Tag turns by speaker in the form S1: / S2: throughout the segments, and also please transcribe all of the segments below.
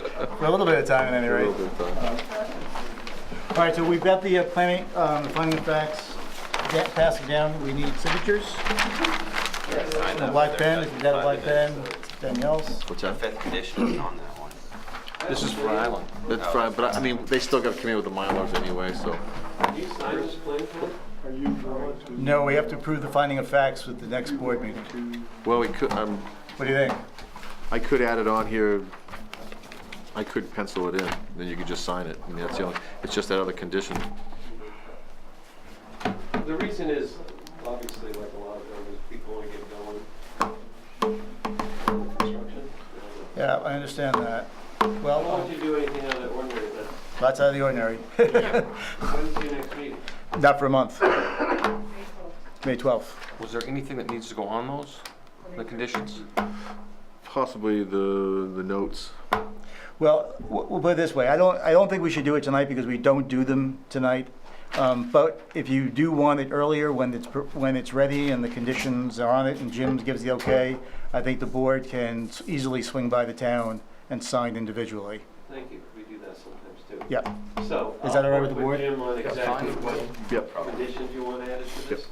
S1: For a little bit of time at any rate. All right, so we've got the uh, planning, um, the finding of facts, da- passing down, we need signatures. A black pen, if you've got a black pen, Danielle's.
S2: What's that?
S3: Fifth condition is on that one.
S2: This is Rhode Island. That's fine, but I- I mean, they still got to come in with the Mylars anyway, so.
S1: No, we have to approve the finding of facts with the next board meeting.
S2: Well, we could, um,
S1: What do you think?
S2: I could add it on here. I could pencil it in, then you could just sign it. I mean, that's the only, it's just that other condition.
S4: The reason is, obviously, like a lot of buildings, people want to get going. Construction.
S1: Yeah, I understand that.
S4: Why
S1: Well,
S4: don't you do anything out of the ordinary then?
S1: that's out of the ordinary.
S4: When's your next meeting?
S1: Not for a month. May 12th.
S5: Was there anything that needs to go on those, the conditions?
S2: Possibly the, the notes.
S1: Well, w- we'll put it this way, I don't, I don't think we should do it tonight because we don't do them tonight. Um, But if you do want it earlier, when it's, pr- when it's ready and the conditions are on it and Jim gives the okay, I think the board can s- easily swing by the town and sign individually.
S4: Thank you, we do that sometimes too.
S1: Yep,
S4: So.
S1: Is that all
S4: I'll
S1: right with the
S4: work
S1: board?
S4: Jim on exactly
S5: fine.
S4: what
S2: Yep.
S4: conditions you want added to this,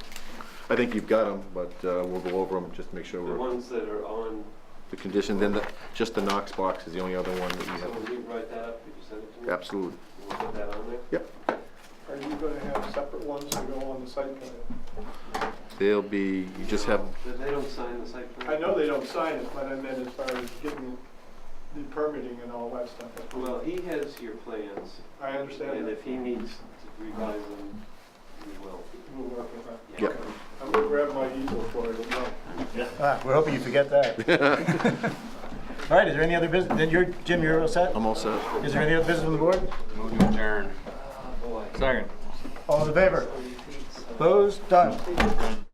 S2: I think you've got them, but uh, we'll go over them, just to make sure
S4: the
S2: we're,
S4: ones that are on,
S2: the condition, then the, just the Knox box is the only other one that we
S4: so
S2: have.
S4: when you write that up, could you send it to me?
S2: Absolutely.
S4: We'll put that on there.
S2: Yep.
S6: Are you gonna have separate ones that go on the site plan?
S2: They'll be, you just have,
S4: That they don't sign the site plan?
S6: I know they don't sign it, but I meant as far as getting the permitting and all that stuff.
S4: Well, he has your plans,
S6: I understand
S4: and
S6: that.
S4: if he needs to revise them, we will.
S6: We'll work with that.
S2: yep.
S6: I'm gonna grab my easel for it, no.
S1: Ah, we're hoping you forget that. All right, is there any other business, then you're, Jim, you're all set?
S2: I'm all set.
S1: Is there any other business on the board?
S3: Move to adjourn.
S1: All in favor? Opposed, done.